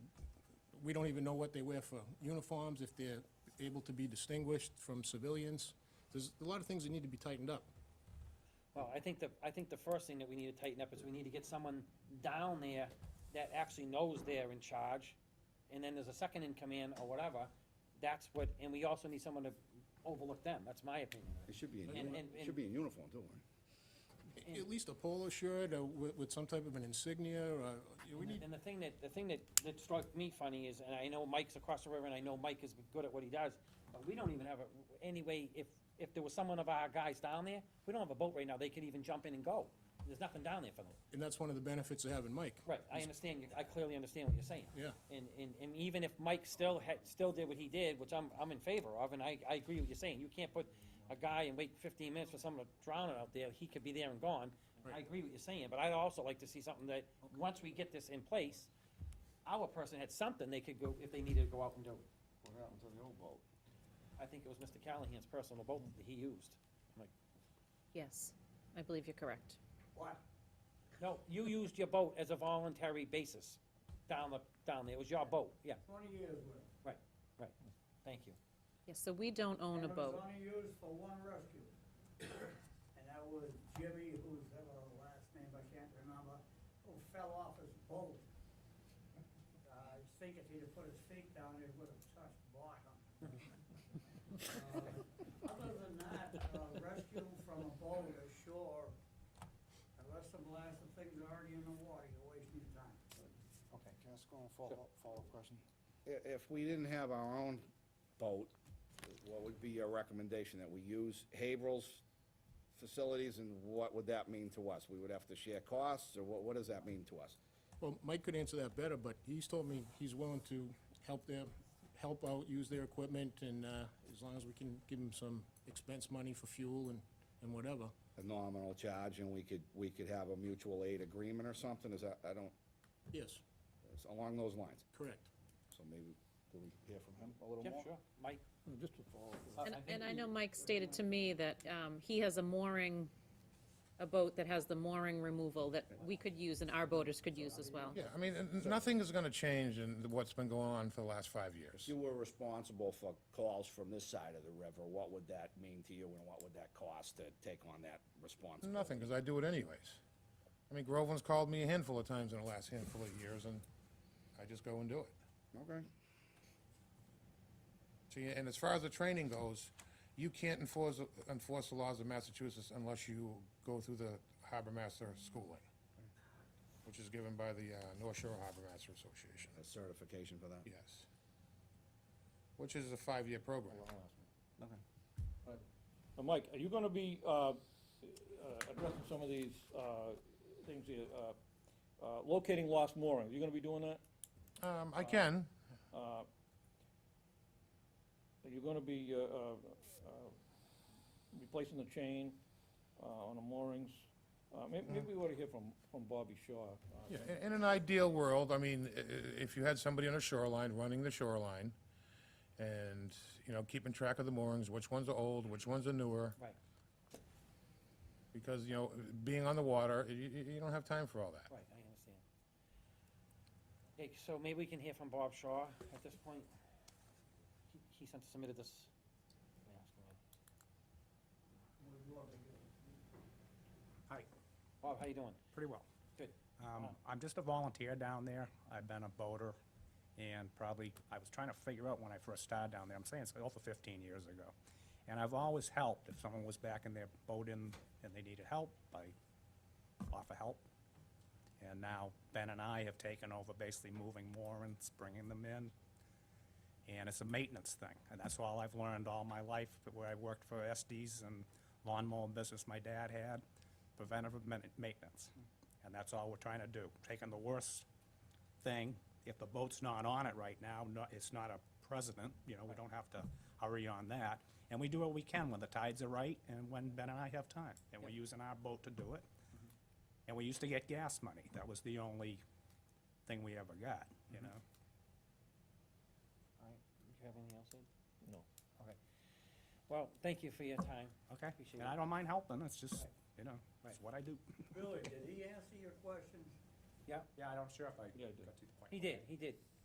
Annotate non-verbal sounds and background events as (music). we don't even know what they wear for uniforms, if they're able to be distinguished from civilians. There's a lot of things that need to be tightened up. Well, I think the, I think the first thing that we need to tighten up is we need to get someone down there that actually knows they're in charge, and then there's a second in command or whatever, that's what, and we also need someone to overlook them, that's my opinion. It should be in, And- uni- and- it should be in uniform too, right? At least a polo shirt or with, with some type of an insignia or, uh, we need, And the thing that, the thing that, that struck me funny is, and I know Mike's across the river, and I know Mike is good at what he does, but we don't even have a, any way, if, if there was someone of our guys down there, we don't have a boat right now, they could even jump in and go. There's nothing down there for them. and that's one of the benefits of having Mike. Right, I understand, you- I clearly understand what you're saying. Yeah. And, and, and even if Mike still had, still did what he did, which I'm, I'm in favor of, and I, I agree with you saying, you can't put a guy and wait fifteen minutes for someone to drown out there, he could be there and gone. I agree with you saying, but I'd also like to see something that, once we get this in place, our person had something they could go, if they needed to go out and do it. What happened to the old boat? I think it was Mr. Callahan's personal boat that he used. Yes, I believe you're correct. What? No, you used your boat as a voluntary basis down the, down there, it was your boat, yeah, Twenty years with. thank you. Yes, so we don't own a And it boat. was only used for one rescue. (coughs) And that was Jimmy, whose ever last name I can't remember, who fell off his boat. (laughs) Uh, I think if he'd have put his feet down, it would have touched bottom. (laughs) Uh, Other than that, uh, rescue from a boat ashore, unless the blast of things are already in the water, you're wasting your time. Okay, can I ask one follow-up, follow-up question? I- if we didn't have our own boat, what would be your recommendation, that we use Haverhill's facilities, and what would that mean to us? We would have to share costs, or what, what does that mean to us? Well, Mike could answer that better, but he's told me he's willing to help their, help out, use their equipment, and, uh, as long as we can give him some expense money for fuel and, and whatever. A nominal charge, and we could, we could have a mutual aid agreement or something, is that, I don't, Yes, it's along those lines. correct. So maybe, do we hear from him a little Yeah, more? sure, Mike? Just to follow, up, Uh, And, think and I we- know Mike stated to me that um, he has a mooring, a boat that has the mooring removal that we could use and our boaters could use as well. Yeah, I mean, and nothing is gonna change in what's been going on for the last five years. you were responsible for calls from this side of the river, what would that mean to you and what would that cost to take on that responsibility? Nothing, because I do it anyways. I mean, Groveland's called me a handful of times in the last handful of years, and I just go and do it. Okay. See, and as far as the training goes, you can't enforce, enforce the laws of Massachusetts unless you go through the harbor master schooling, which is given by the uh, North Shore Harbor Master Association, A certification for that? yes. Which is a five-year program. Okay. Now, Mike, are you gonna be, uh, uh, addressing some of these, uh, things, here, uh, uh, locating lost moorings, you gonna be doing that? Um, uh, I can, Are you gonna be, uh, uh, uh, replacing the chain, uh, on the moorings? Uh, may- maybe we ought to hear from, from Bobby Shaw. uh, Yeah, in- in an ideal world, I mean, i- i- if you had somebody on a shoreline, running the shoreline, and, you know, keeping track of the moorings, which ones are old, which ones are newer, Right, because, you know, being on the water, you, you you don't have time for all that. right, I understand. Okay, so maybe we can hear from Bob Shaw at this point. He, he sent, submitted this. Let me ask him. Would love to get it. Hi, Bob, how you doing? pretty well. Good. Um, Oh. I'm just a volunteer down there. I've been a boater and probably, I was trying to figure out when I first started down there. I'm saying it's over 15 years ago. And I've always helped. If someone was back in their boat in and they needed help, I offer help. And now Ben and I have taken over basically moving moorings, bringing them in. And it's a maintenance thing. And that's all I've learned all my life, where I worked for SDs and lawnmower business my dad had, preventive men- maintenance. And that's all we're trying to do, taking the worst thing, if the boat's not on it right now, no- it's not a president, you know, we don't have to hurry on that. And we do what we can when the tides are right and when Ben and I have time. And we're using our boat to do it. And we used to get gas money. That was the only thing we ever got, you know? All right, do you have anything else, Ed? No. Okay. Well, thank you for your time. Okay? Appreciate And I it. don't mind helping, it's just, you know, it's what I do. Billy, did he answer your questions? Yeah, I'm sure if I Yeah, I did. to the point. He did, he did.